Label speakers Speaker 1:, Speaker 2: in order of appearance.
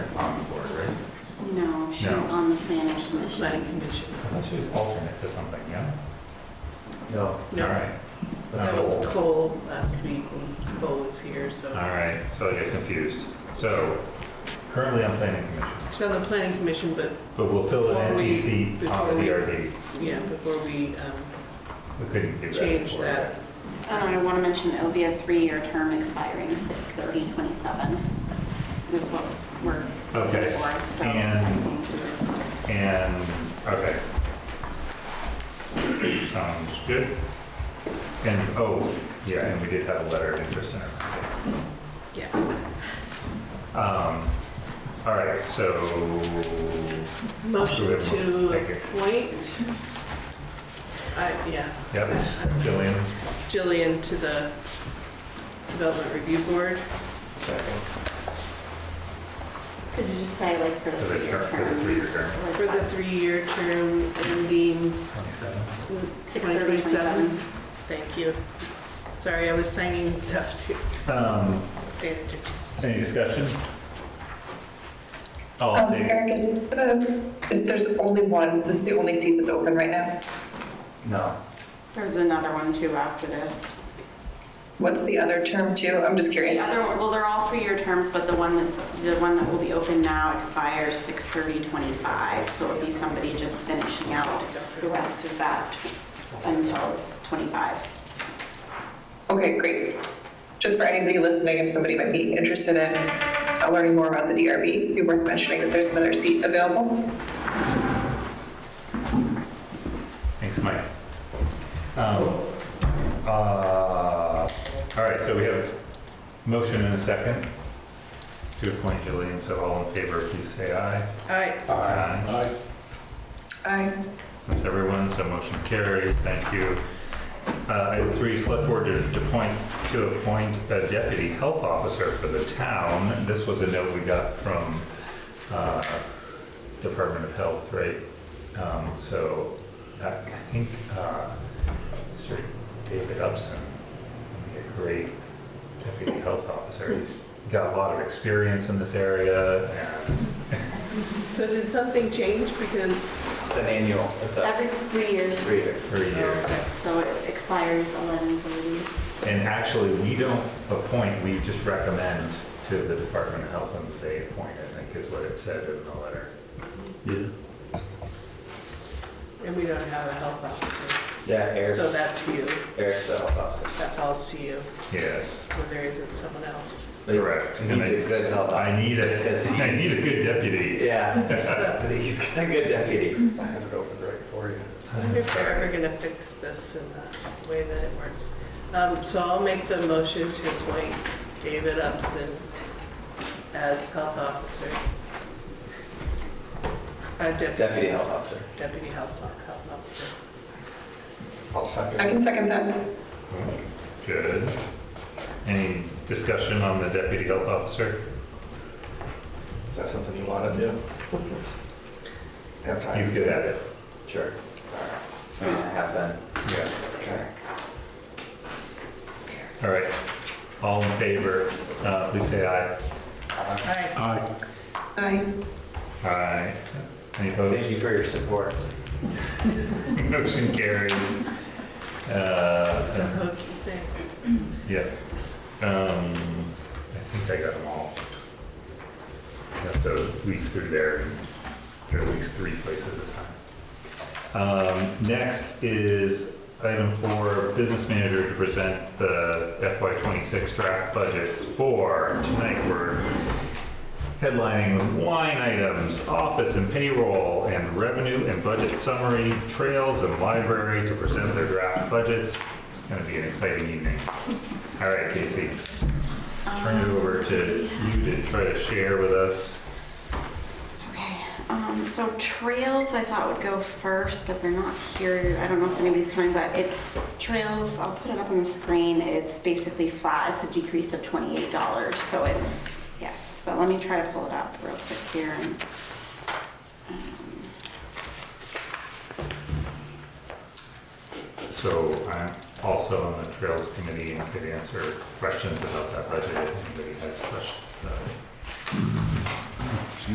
Speaker 1: management, planning commission.
Speaker 2: Well, she was alternate to something, yeah?
Speaker 3: No.
Speaker 2: All
Speaker 1: No,
Speaker 2: right.
Speaker 1: that was
Speaker 2: Cole.
Speaker 1: Cole last week when Cole was here,
Speaker 2: All
Speaker 1: so.
Speaker 2: right, so I get confused. So currently I'm planning commission,
Speaker 1: It's on the planning commission, but
Speaker 2: but we'll fill the
Speaker 1: Before we-
Speaker 2: NTC
Speaker 1: before
Speaker 2: on the
Speaker 1: we-
Speaker 2: DRB.
Speaker 1: yeah, before we um,
Speaker 2: We couldn't do that.
Speaker 1: change
Speaker 2: before.
Speaker 1: that.
Speaker 4: Um, I want to mention that it'll be a three-year term expiring 6/30/27 is what we're
Speaker 2: Okay,
Speaker 4: looking for. So
Speaker 2: and-
Speaker 4: I think
Speaker 2: And, okay. Sounds good. And, oh, yeah, and we did have a letter of interest in her.
Speaker 1: Yeah,
Speaker 2: Um, all right, so,
Speaker 1: motion
Speaker 2: Okay, motion.
Speaker 1: to
Speaker 2: Thank you.
Speaker 1: appoint. I, yeah,
Speaker 2: yep, Jillian,
Speaker 1: Jillian to the Development Review Board.
Speaker 3: Second.
Speaker 4: Could you just say like for the
Speaker 2: For the
Speaker 4: three-year
Speaker 2: term- for the three-year term.
Speaker 4: term? So, like,
Speaker 1: For the three-year term ending
Speaker 2: 27.
Speaker 1: 2027. Thank you. Sorry, I was signing stuff too.
Speaker 2: Um,
Speaker 1: Pay attention.
Speaker 2: any discussion? Oh, All in
Speaker 5: Um,
Speaker 2: favor?
Speaker 5: Eric, is, the- is there's only one, this is the only seat that's open right now?
Speaker 3: No.
Speaker 4: There's another one too after this.
Speaker 5: What's the other term too? I'm just
Speaker 4: The
Speaker 5: curious.
Speaker 4: other, well, they're all three-year terms, but the one that's, the one that will be open now expires 6/30/25. So it'll be somebody just finishing out the rest of that until 25.
Speaker 5: Okay, great. Just for anybody listening, if somebody might be interested in uh, learning more about the DRB, it'd be worth mentioning that there's another seat available.
Speaker 2: Thanks, Mike. Um, uh, All right, so we have motion and a second to appoint Jillian, so all in favor, please say aye.
Speaker 1: Aye.
Speaker 2: Aye.
Speaker 5: Aye.
Speaker 2: That's everyone, so motion carries, thank you. Uh, Item three, select board to to appoint, to appoint a deputy health officer for the town. This was a note we got from uh, Department of Health, right? Um, So I I think uh, Sir David Upson would be a great deputy health officer. He's got a lot of experience in this area and
Speaker 1: So did something change because,
Speaker 3: It's an annual, it's a
Speaker 4: Every three years,
Speaker 3: three year.
Speaker 2: for years.
Speaker 4: so it expires 11/30.
Speaker 2: And actually, we don't appoint, we just recommend to the Department of Health and they appoint, I think is what it said in the letter.
Speaker 1: and we don't have a health officer,
Speaker 3: Yeah,
Speaker 1: so
Speaker 3: Eric's,
Speaker 1: that's you,
Speaker 3: Eric's the health officer.
Speaker 1: that falls to you,
Speaker 2: Yes,
Speaker 1: when there isn't someone else.
Speaker 2: correct.
Speaker 3: He's a good health officer.
Speaker 2: I need a,
Speaker 3: Because
Speaker 2: I
Speaker 3: he-
Speaker 2: need a good deputy.
Speaker 3: Yeah, he's got a good deputy. I have it open right for you.
Speaker 1: I wonder if they're ever gonna fix this in the way that it works. Um, so I'll make the motion to appoint David Upson as health officer. Uh,
Speaker 3: Deputy
Speaker 1: deputy,
Speaker 3: health officer.
Speaker 1: deputy health, health officer.
Speaker 3: I'll
Speaker 5: I can second that.
Speaker 2: Good. Any discussion on the deputy health officer?
Speaker 3: Is that something you want to do? Have
Speaker 2: He's good at it.
Speaker 3: Sure. All right. Have been.
Speaker 2: Yeah.
Speaker 3: Okay.
Speaker 2: All right. All in favor, uh, please say aye.
Speaker 1: Aye.
Speaker 2: Aye.
Speaker 5: Aye.
Speaker 2: Aye. Any opposed?
Speaker 3: Thank you for your support.
Speaker 2: Motion carries. Uh,
Speaker 1: It's a hokey thing.
Speaker 2: Yeah. Um, I think I got them all. I have to leaf through there and there are at least three places this time. Um, next is item four, business manager to present the FY twenty-six draft budgets for tonight. We're headlining line items, office and payroll, and revenue and budget summary, trails and library to present their draft budgets. It's gonna be an exciting evening. All right, Casey, turn it over to you to try to share with us.
Speaker 4: Okay, um, so trails I thought would go first, but they're not here. I don't know if anybody's coming, but it's trails, I'll put it up on the screen. It's basically flat. It's a decrease of twenty-eight dollars, so it's, yes. But let me try to pull it up real quick here and. um,
Speaker 2: So I'm also on the Trails Committee and could answer questions about that budget if anybody has questions. about it.